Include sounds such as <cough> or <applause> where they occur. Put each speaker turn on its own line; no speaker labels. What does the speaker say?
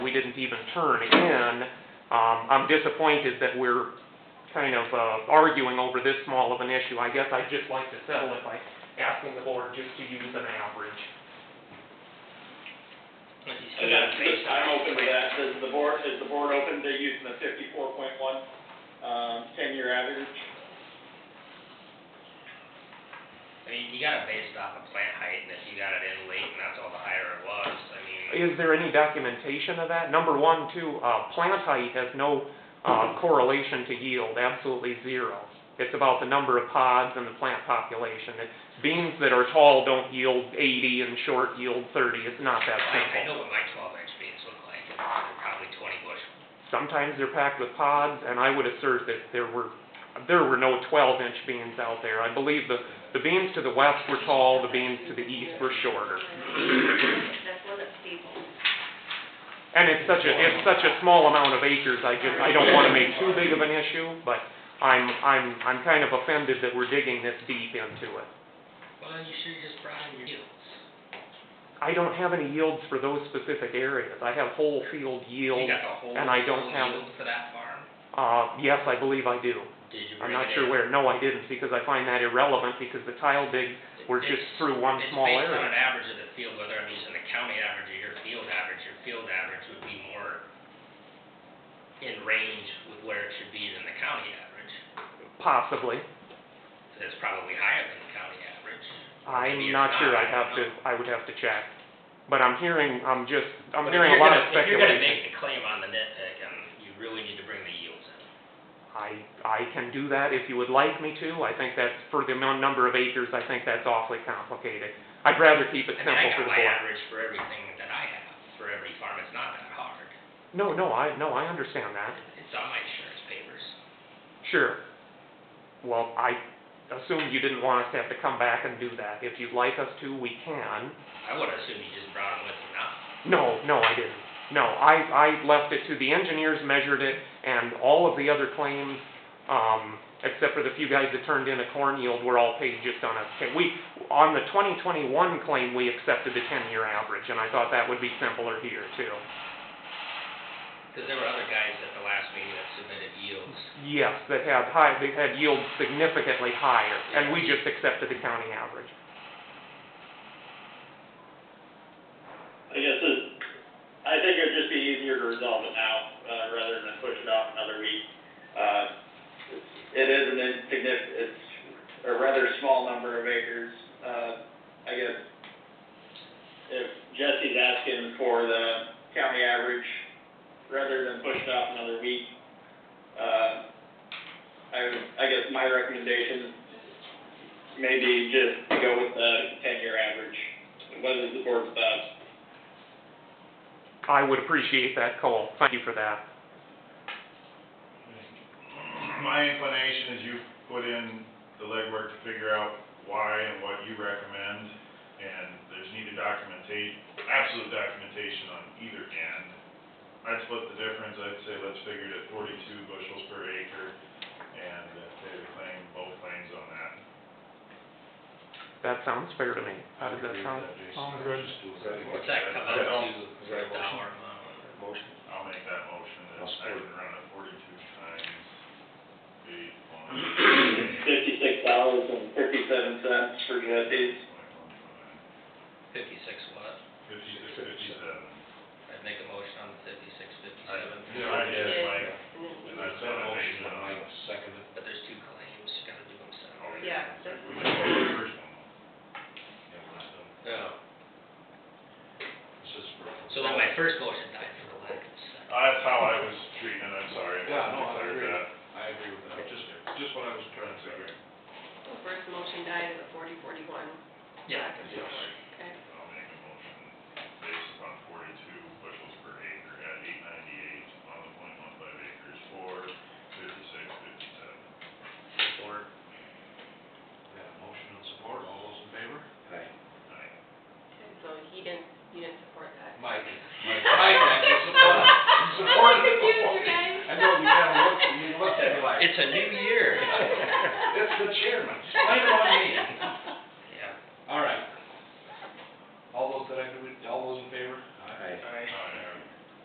we didn't even turn in. Um, I'm disappointed that we're kind of, uh, arguing over this small of an issue. I guess I'd just like to settle it by asking the board just to use an average.
But you still
And
gotta
that's,
base
I'm
it.
open to that, does the board, is the board open to using the fifty-four point one, um, ten-year average?
I mean, you gotta base it off of plant height, and if you got it in late and that's all the higher it was, I mean,
Is there any documentation of that? Number one, too, uh, plant height has no, uh, correlation to yield, absolutely zero. It's about the number of pods and the plant population. It- Beans that are tall don't yield eighty and short yield thirty, it's not that
I, I
simple.
know what my twelve inch beans look like, they're probably twenty bushel.
Sometimes they're packed with pods, and I would assert that there were, there were no twelve inch beans out there. I believe the, the beans to the west were tall, the beans to the east were shorter.
That's what it's people.
And it's such a, it's such a small amount of acres, I just, I don't wanna make too big of an issue, but I'm, I'm, I'm kind of offended that we're digging this deep into it.
Well, you should've just brought in your yields.
I don't have any yields for those specific areas, I have whole field
You
yield,
got the whole,
and I don't
whole
have-
yield for that farm?
uh, yes, I believe I do.
Did you
I'm
bring
not
it
sure
in?
where, no, I didn't, because I find that irrelevant, because the tile dig, we're just
It's-
through one small
It's based on an
area.
average of the field, whether I'm using the county average or your field average, your field average would be more in range with where it should be than the county average.
Possibly,
So it's probably higher than the county average.
I'm
Maybe it's
not sure,
not, I
I'd have to,
don't
I would have to check. But I'm hearing, I'm just, I'm
But if
hearing a
you're
lot
gonna-
of
If you're gonna
speculation.
make the claim on the nitpick, um, you really need to bring the yields in.
I, I can do that if you would like me to. I think that's, for the amount, number of acres, I think that's awfully complicated. I'd rather keep it
I mean,
simple
I got
for the
my
board.
average for everything that I have, for every farm, it's not that hard.
No, no, I, no, I understand that.
It's on my insurance papers.
Sure. Well, I assumed you didn't want us to have to come back and do that. If you'd like us to, we can.
I would assume you just brought them with you now.
No, no, I didn't. No, I, I left it to, the engineers measured it, and all of the other claims, um, except for the few guys that turned in a corn yield, were all paid just on a, okay, we, on the twenty twenty-one claim, we accepted the ten-year average, and I thought that would be simpler here, too.
Because there were other guys at the last meeting that submitted yields.
Yes, that had high, they had yields significantly higher, and we just accepted the county average.
I guess it, I think it'd just be easier to resolve it now, uh, rather than push it off another week. Uh, it is an insignificant, it's a rather small number of acres, uh, I guess. If Jesse's asking for the county average, rather than push it off another week, uh, I, would- I guess my recommendation may be just to go with the ten-year average. What is the board's thoughts?
I would appreciate that, Cole. Thank you for that.
My inclination is you put in the legwork to figure out why and what you recommend, and there's needed documentation, absolute documentation on either end. I'd split the difference, I'd say let's figure it at forty-two bushels per acre, and uh, pay the claim, both claims on that.
That sounds fair to me. How does that sound?
Sounds good.
Does that come up
Yeah.
to
Is
a
that a motion?
dollar amount?
Motion?
I'll make that motion, that I
I'll support it.
would run at forty-two times eight point
<clears throat>
fifty-six dollars and fifty-seven cents for Jesse's.
Fifty-six what?
Fifty-six, fifty-seven.
I'd make a motion on the fifty-six, fifty-seven.
Yeah, I did,
And
Mike,
then,
and that's what I made,
Motion,
uh,
Mike, second it.
But there's two claims, you gotta do them separate.
Yeah, that's,
We just voted the first one.
Yeah, we're not done.
No.
This is for-
So then my first motion died for the uh, lack of a second.
That's how I was treating it, I'm sorry. I
Yeah, no, I
declared
agree.
that.
I agree with that, just, just what I was trying to figure.
the first motion died at the forty forty-one.
Yeah.
Okay.
I'll um, make a motion based upon forty-two bushels per acre at eight ninety-eight on the point one five acres for fifty-six, fifty-seven.
Or,
Yeah, motion and support, all those in favor? Aye.
Aye.
Okay, So he didn't, you didn't support that.
Mike. Mike, I can support
<laughs>
it.
<laughs>
You
I'm
supported it
confused,
before.
you guys.
I know, you kind of looked, you looked at me like.
<laughs>
it's a new year.
It's the chairman, explain it on me.
<laughs>